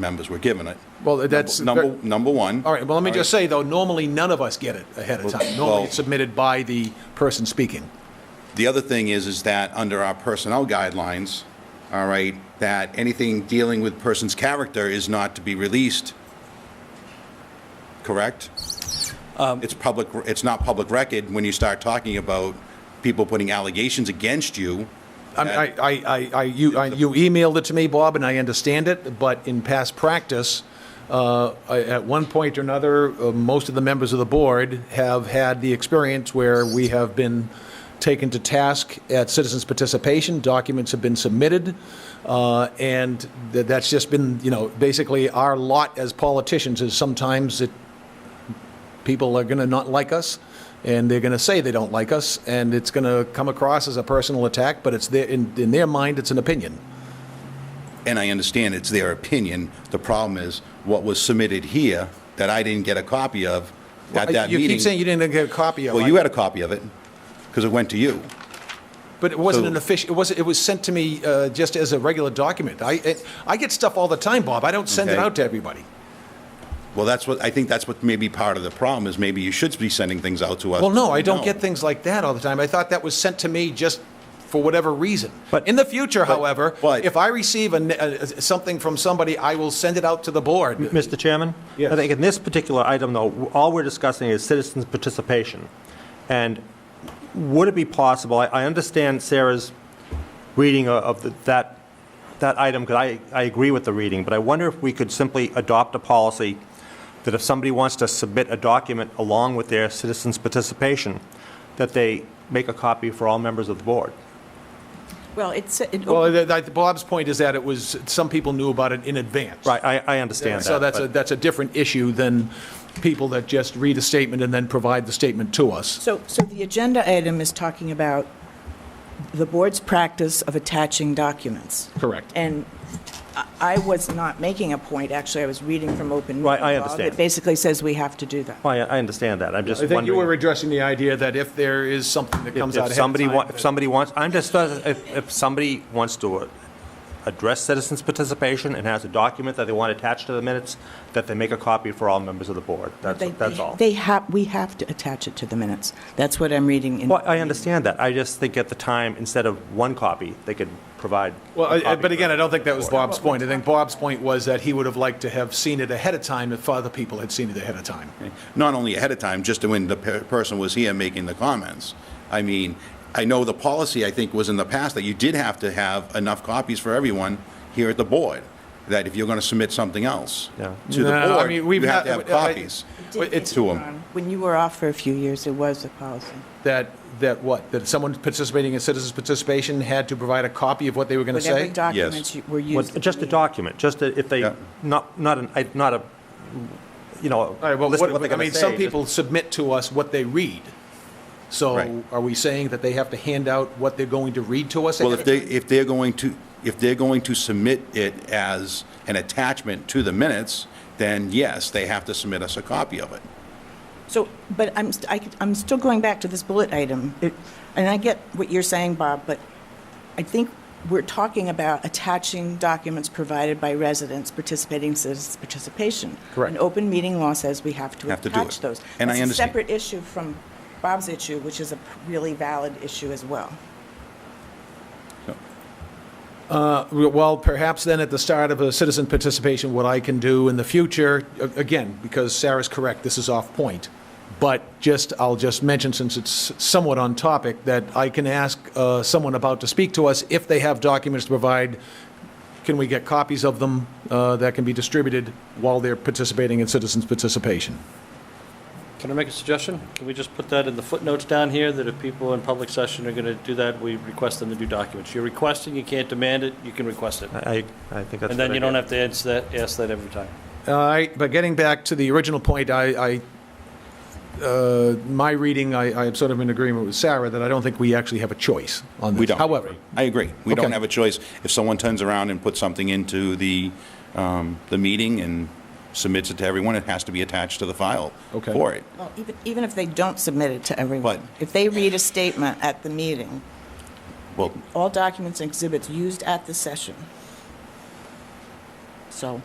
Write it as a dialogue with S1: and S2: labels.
S1: members were given it.
S2: Well, that's-
S1: Number, number one.
S2: All right, well, let me just say, though, normally none of us get it ahead of time. Normally
S1: well-
S2: it's submitted by the person speaking.
S1: The other thing is, is that under our personnel guidelines, all right, that anything dealing with person's character is not to be released, correct?
S2: Um,
S1: It's public, it's not public record when you start talking about people putting allegations against you.
S2: I'm- I, I, I, I, you, I- you emailed it to me, Bob, and I understand it, but in past practice, uh, I- at one point or another, uh, most of the members of the board have had the experience where we have been taken to task at citizens' participation, documents have been submitted, uh, and tha- that's just been, you know, basically our lot as politicians is sometimes it people are going to not like us and they're going to say they don't like us and it's going to come across as a personal attack but it's their in, in their mind it's an opinion
S1: and I understand it's their opinion. The problem is what was submitted here that I didn't get a copy of at that
S2: you
S1: meeting.
S2: keep saying you didn't get a copy of
S1: Well,
S2: it
S1: you had a copy of it because it went to you.
S2: but it wasn't
S1: so-
S2: an official it was it was sent to me uh, just as a regular document i it, i get stuff all the time bob i don't send it
S1: Okay.
S2: out to everybody
S1: Well, that's what, I think that's what may be part of the problem, is maybe you should be sending things out to us.
S2: well no i don't get things like that all the time i thought that was sent to me just for whatever reason
S1: But-
S2: in the future however
S1: but-
S2: if i receive a, n- a- something from somebody i will send it out to the board
S3: Mr. Chairman?
S2: Yes.
S3: I think in this particular item, though, all we're discussing is citizens' participation. And would it be possible, I- I understand Sarah's reading o- of the- that, that item, because I, I agree with the reading, but I wonder if we could simply adopt a policy that if somebody wants to submit a document along with their citizens' participation, that they make a copy for all members of the board?
S4: Well, it's, it-
S2: Well, th- th- Bob's point is that it was, some people knew about it in advance.
S3: Right, I, I understand that.
S2: So that's
S3: but-
S2: a, that's a different issue than people that just read a statement and then provide the statement to us.
S4: so, so the agenda item is talking about the board's practice of attaching documents.
S2: Correct.
S4: And I- I was not making a point, actually, I was reading from open.
S3: Right,
S4: meeting
S3: I
S4: law
S3: understand.
S4: that basically says we have to do that.
S3: I, I understand that, I'm just
S2: I
S3: wondering.
S2: think you were addressing the idea that if there is something that comes
S3: If
S2: out ahead
S3: if
S2: of
S3: somebody,
S2: time
S3: wa-
S2: that-
S3: if somebody wants, I'm just, uh, if, if somebody wants to uh, address citizens' participation and has a document that they want attached to the minutes, that they make a copy for all members of the board. That's,
S4: They-
S3: that's all.
S4: They have, we have to attach it to the minutes. That's what I'm reading in.
S3: Well, I understand that. I just think at the time, instead of one copy, they could provide. a
S2: Well, I- I-
S3: copy
S2: but
S3: for
S2: again, I don't think that was
S3: the board.
S2: Bob's point. I think Bob's point was that he would have liked to have seen it ahead of time if other people had seen it ahead of time.
S1: Not only ahead of time, just when the per- person was here making the comments. I mean, I know the policy, I think, was in the past that you did have to have enough copies for everyone here at the board, that if you're going to submit something else
S3: Yeah.
S1: to the
S2: No, no, I
S1: board,
S2: mean, we've
S1: you have
S2: not-
S1: to have
S2: I- I-
S1: copies
S2: Well, It's
S1: to them.
S4: When you were off for a few years, it was a policy.
S2: that, that what? That someone participating in citizens' participation had to provide a copy of what they were going to
S4: Whatever
S2: say?
S4: documents you- were
S3: Well,
S4: used. at
S3: Just
S4: the
S3: a
S4: meeting.
S3: document, just a- if they,
S1: Yeah.
S3: not, not an, I- not a, you know,
S2: All right, well,
S3: listen to what
S2: what,
S3: they're
S2: I
S3: going
S2: mean,
S3: to say.
S2: some
S3: just-
S2: people submit to us what they read. So
S1: Right.
S2: are we saying that they have to hand out what they're going to read to us?
S1: Well, if they, if they're going to, if they're going to submit it as an attachment to the minutes, then yes, they have to submit us a copy of it.
S4: So, but I'm, st- I, am still going back to this bullet item. And I get what you're saying, Bob, but I think we're talking about attaching documents provided by residents participating in citizens' participation.
S2: Correct.
S4: An open meeting law says we have to
S1: Have to do
S4: attach
S1: it.
S4: those.
S1: And I
S4: That's
S1: understand.
S4: a separate issue from Bob's issue, which is a p- really valid issue as well.
S2: Uh, Well, perhaps then at the start of a citizen participation, what I can do in the future, a- again, because Sarah's correct, this is off point. But just, I'll just mention, since it's somewhat on topic, that I can ask uh, someone about to speak to us if they have documents to provide. Can we get copies of them uh, that can be distributed while they're participating in citizens' participation?
S5: Can I make a suggestion? Can we just put that in the footnotes down here, that if people in public session are going to do that, we request them to do documents? You're requesting, you can't demand it, you can request it.
S3: I, I I think that's.
S5: And
S3: a
S5: then
S3: good
S5: you don't
S3: idea.
S5: have to answer that, ask that every time.
S2: All right, but getting back to the original point, I, I, uh, my reading, I, I am sort of in agreement with Sarah that I don't think we actually have a choice on this.
S1: We don't.
S2: However,
S1: I agree. We don't
S2: Okay.
S1: have a choice. If someone turns around and puts something into the, um, the meeting and submits it to everyone, it has to be attached to the file
S2: Okay.
S1: for it.
S4: Well, even, even if they don't submit it to everyone.
S1: But-
S4: If they read a statement at the meeting,
S1: Well,
S4: all documents and exhibits used at the session. So.